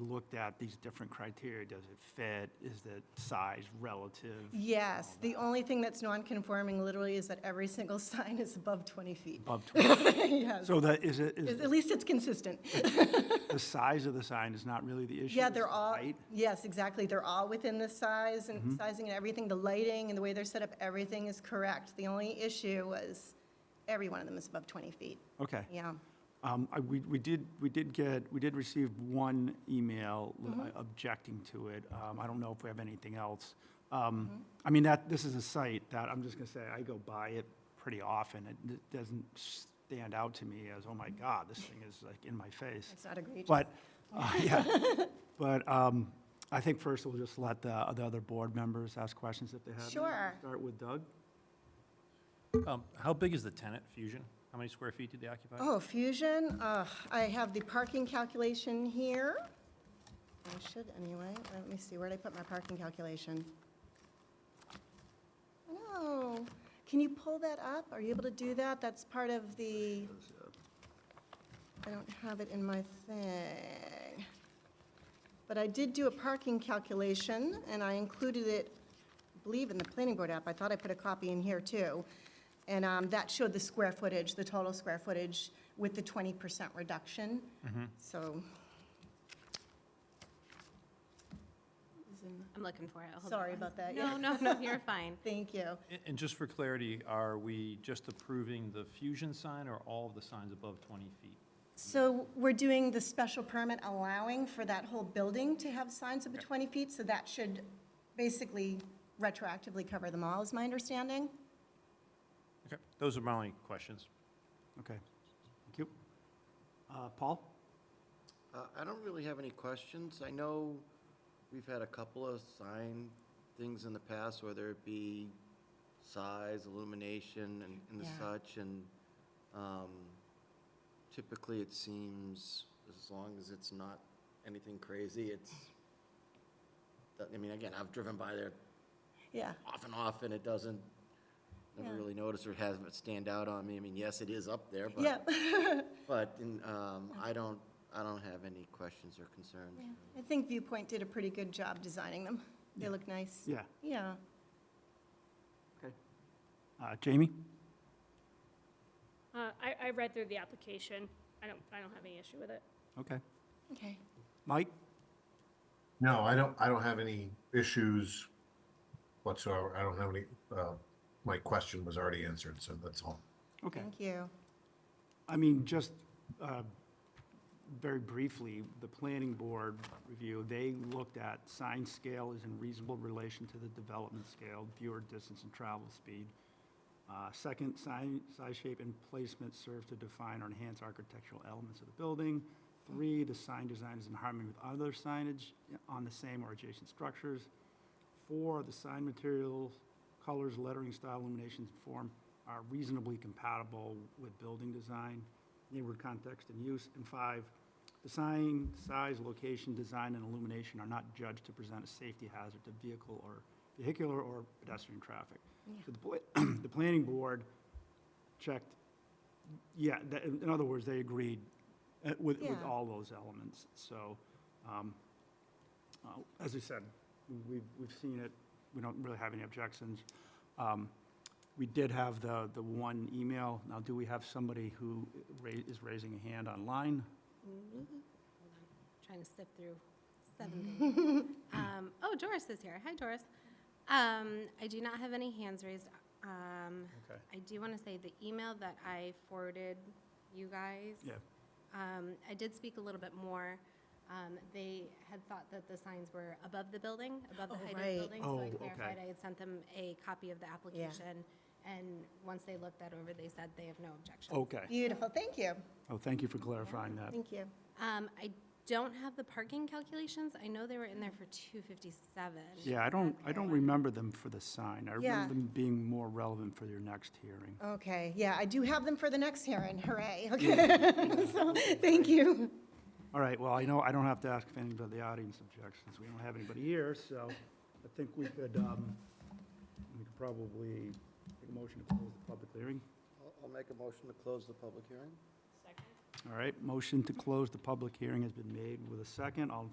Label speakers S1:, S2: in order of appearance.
S1: looked at these different criteria, does it fit, is the size relative?
S2: Yes, the only thing that's non-conforming literally is that every single sign is above 20 feet.
S1: Above 20?
S2: Yes,
S1: So that, is it,
S2: At
S1: is
S2: at least it's consistent.
S1: the size of the sign is not really the issue?
S2: Yeah,
S1: it's
S2: they're
S1: the
S2: all,
S1: height? Mm-hmm.
S2: yes, exactly, they're all within the size and sizing and everything, the lighting and the way they're set up, everything is correct. The only issue was every one of them is above 20 feet,
S1: Okay.
S2: yeah.
S1: Um, I, we, we did, we did get, we did receive one email uh,
S2: Mm-hmm.
S1: objecting to it. Um, I don't know if we have anything else. Um,
S2: Mm-hmm.
S1: I mean, that, this is a site that, I'm just gonna say, I go by it pretty often. It d- doesn't stand out to me as, oh my
S2: Mm-hmm.
S1: God, this thing is like in my face.
S2: It's not egregious.
S1: But, uh, yeah, but, um, I think first we'll just let the, the other board members ask questions if they have. any.
S2: Sure.
S1: Start with Doug.
S3: Um, How big is the tenant, Fusion? How many square feet did they occupy?
S2: Oh, Fusion, uh, I have the parking calculation here. I should anyway, let me see, where'd I put my parking calculation? No, can you pull that up? Are you able to do that? That's part of the, I don't have it in my thing. But I did do a parking calculation, and I included it, I believe, in the planning board app. I thought I put a copy in here, too. And um, that showed the square footage, the total square footage with the 20% reduction.
S1: Mm-hmm.
S2: So,
S4: I'm looking for it. Hold on
S2: Sorry
S4: one
S2: about
S4: sec-
S2: that, yeah.
S4: No, no, no, you're fine.
S2: thank you.
S3: A- And just for clarity, are we just approving the Fusion sign or all of the signs above 20 feet?
S2: So we're doing the special permit allowing for that whole building to have signs up to
S3: Okay.
S2: 20 feet, so that should basically retroactively cover them all, is my understanding.
S3: Okay, those are my only questions.
S1: Okay. Thank you. Uh, Paul?
S5: Uh, I don't really have any questions. I know we've had a couple of sign things in the past, whether it be size, illumination, and- and the
S2: Yeah.
S5: such, and um, typically it seems, as long as it's not anything crazy, it's, I mean, again, I've driven by there
S2: Yeah,
S5: off and off, and it doesn't, never
S2: Yeah.
S5: really notice or has it stand out on me. I mean, yes, it is up there, but.
S2: yeah.
S5: But in, um, I don't, I don't have any questions or concerns.
S2: I think Viewpoint did a pretty good job designing them. They look nice.
S1: Yeah.
S2: Yeah.
S1: Uh, Jamie?
S6: Uh, I, I read through the application. I don't, I don't have any issue with it.
S1: Okay.
S2: Okay.
S1: Mike?
S7: No, I don't, I don't have any issues whatsoever. I don't have any, uh, my question was already answered, so that's all.
S1: Okay.
S2: Thank you.
S1: I mean, just uh, very briefly, the planning board review, they looked at sign scale is in reasonable relation to the development scale, viewer distance and travel speed. Uh, Second, sign, size, shape, and placement serve to define or enhance architectural elements of the building. Three, the sign design is in harmony with other signage on the same or adjacent structures. Four, the sign materials, colors, lettering, style, illuminations, and form are reasonably compatible with building design, neighborhood context and use. And five, the sign, size, location, design, and illumination are not judged to present a safety hazard to vehicle or vehicular or pedestrian traffic. So the, pla- the planning board checked, yeah, that, in other words, they agreed uh, with, with
S2: Yeah.
S1: all those elements. So, um, uh, As we said, we've, we've seen it, we don't really have any objections. Um, We did have the, the one email. Now, do we have somebody who ra- is raising a hand online?
S4: Mm-hmm. Trying to sift through seven things. Um, Oh, Doris is here. Hi, Doris. Um, I do not have any hands raised. Um,
S1: Okay.
S4: I do want to say the email that I forwarded you guys.
S1: Yeah.
S4: Um, I did speak a little bit more. Um, they had thought that the signs were above the building, above the
S2: Oh,
S4: height of
S2: right.
S4: the building. So I
S1: Oh,
S4: clarified,
S1: okay.
S4: I had sent them a copy of the application. And once they looked that over, they said they have no objection.
S1: Okay.
S2: Beautiful, thank you.
S1: Oh, thank you for clarifying that.
S2: Thank you.
S4: Um, I don't have the parking calculations. I know they were in there for two fifty-seven. Um,
S1: Yeah, I don't, I don't remember them for the sign. I
S2: Yeah.
S1: remember them being more relevant for your next hearing.
S2: Okay, yeah, I do have them for the next hearing, hooray, okay. So, thank you.
S1: All right, well, I know, I don't have to ask if anybody in the audience objects, since we don't have anybody here, so I think we could, um, we could probably take a motion to close the public hearing.
S5: I'll- I'll make a motion to close the public hearing.
S1: All right, motion to close the public hearing has been made with a second. All in